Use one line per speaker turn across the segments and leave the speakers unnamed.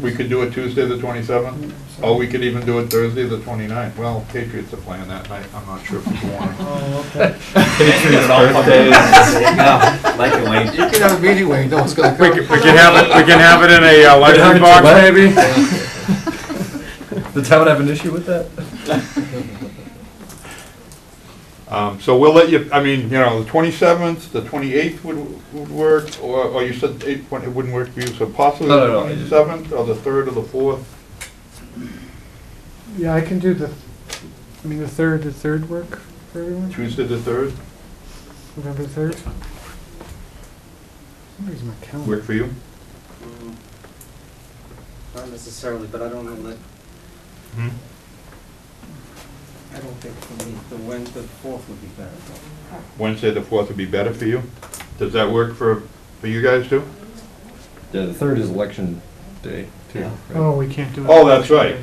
we could do it Tuesday, the 27th, or we could even do it Thursday, the 29th. Well, Patriots are playing that night, I'm not sure if people want to.
Oh, okay.
Patriots birthdays. No, Like it, Wayne.
You can have a meeting, Wayne, no one's gonna
We
come.
can, we can have it, we can have it in a uh,
Without
lunchroom
a
box,
Gillette?
maybe?
The town have an issue with that?
Um, So we'll let you, I mean, you know, the 27th, the 28th would, would work, or, or you said eight- it wouldn't work for you, so possibly
No,
the
no, no, I just-
27th, or the 3rd, or the 4th.
Yeah, I can do the, I mean, the third, the third work for everyone,
Tuesday, the 3rd,
November third? Where's my calendar?
work for you?
Mm, Not necessarily, but I don't know that,
Hmm?
I don't think for me, the Wednesday, the fourth would be better. though.
Wednesday, the 4th would be better for you? Does that work for, for you guys too?
Yeah, the third is election day, too.
Yeah.
right?
Oh, we can't do it.
Oh, that's right.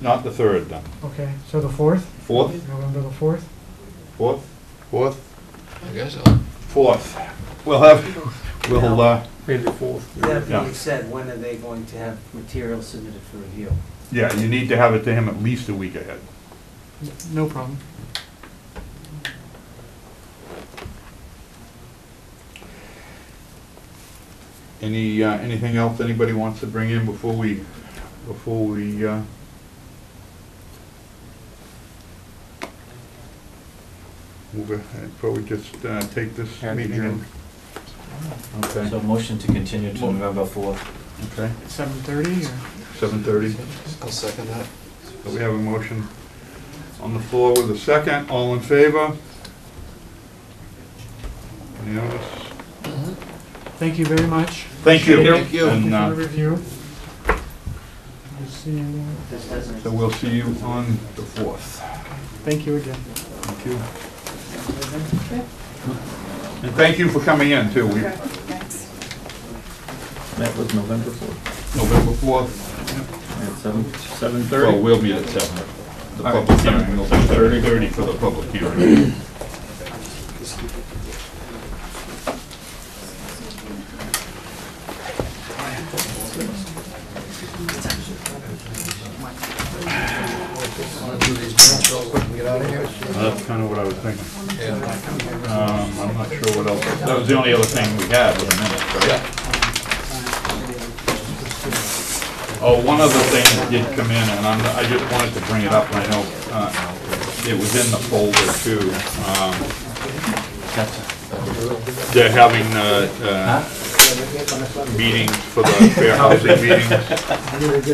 Not the 3rd, then.
Okay, so the fourth,
4th,
November the fourth?
4th, 4th,
I guess so.
4th. We'll have, we'll, uh,
That
Yeah.
being said, when are they going to have material submitted for review?
yeah, you need to have it to him at least a week ahead.
No problem.
Any, uh, anything else anybody wants to bring in before we, before we, uh? Move ahead, probably just, uh, take this
Yeah,
meeting in. Okay,
So motion to continue to November fourth.
okay,
Seven thirty or?
seven thirty.
I'll second that.
So we have a motion on the floor with a second, all in favor? Unanimous?
Thank you very much.
Thank you.
Thank you.
And,
Thank
uh,
you for the review. We'll see you,
This doesn't.
so we'll see you on the fourth.
thank you again.
Thank you. And thank you for coming in, too. We-
That was November fourth,
November 4th,
at seven, seven
well,
thirty.
we'll meet at 7. The
All right,
public
seven.
hearing will be 7:30 for the public hearing.
Wanna do these minutes real quick and get out of here?
That's kind of what I was thinking.
Yeah.
Um, I'm not sure what else, that was the only other thing we had was a minute, right? Oh, one other thing that did come in, and I'm, I just wanted to bring it up, and I know, uh, it was in the folder too. Um, They're having, uh, uh, meetings for the fair housing meetings.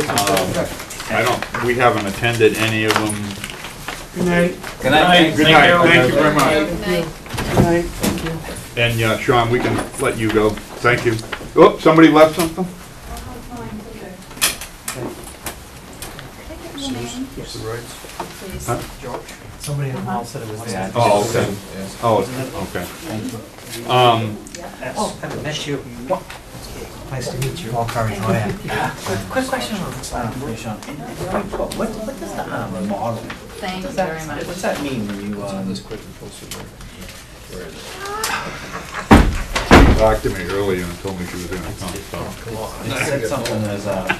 Um, I don't, we haven't attended any of them.
Good night,
Good night.
Good night, thank you very much.
good night, thank you.
And, uh, Sean, we can let you go, thank you. Oh, somebody left something?
What's the rights?
Huh?
Somebody in the hall said it was there.
Oh, okay, oh, okay. Um,
That's, I met you. Nice to meet you. Paul Curry, go ahead.
Quick question on this
Uh,
one.
What, what what does the, um, model,
Thank you very much.
what's that mean when you,
It's on
um,
this quick and posted there. Where is it?
she talked to me earlier and told me she was gonna come, so.
Come
it
on.
said something as, uh,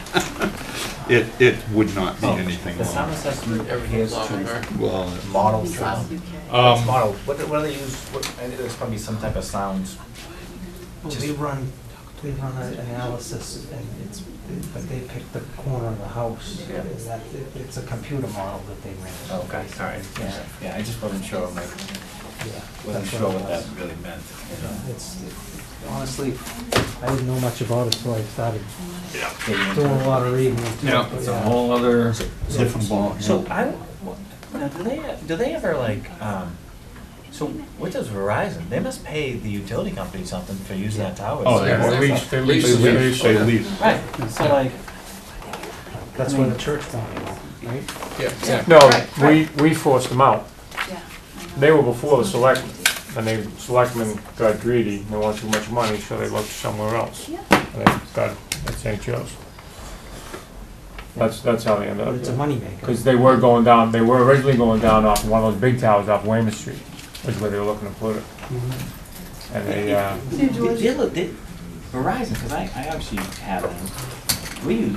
It, it would not be
oh,
anything
the sound
long.
assessment appears to
Well,
model sound.
um,
Model, what, do- what do they use, what, I think there's probably some type of sound.
We run, we run an analysis and it's, but they picked the corner of the house.
Yeah.
And that, it- it's a computer model that they ran.
Okay, all right, yeah, yeah, I just wasn't sure, like,
Yeah.
wasn't
That's
sure
it
what that
was.
really meant, you know?
It's, honestly, I didn't know much about it, so I started
getting into
doing
it.
a lot of reading. into it,
Yeah.
but
It's a whole other
different ball.
So I, what- now, do they, do they ever like, um, so what does Verizon, they must pay the utility company something for using that tower.
Oh, they
so-
will.
lease, they lease,
Lease.
they lease.
They lease.
Right, so like,
That's where the church wanted it, right?
Yeah, yeah.
No, we, we forced them out.
Yeah, I know.
They were before the selectmen, and they, selectmen got greedy, they wanted too much money, so they looked somewhere else.
Yeah.
And they got at St. Joe's. That's, that's how they ended
But it's a
up.
moneymaker.
Because they were going down, they were originally going down off one of those big towers off Wayman Street, which is where they were looking to put it.
Mm-hmm.
And they, uh,
did, did Verizon, cause I, I obviously have them, we use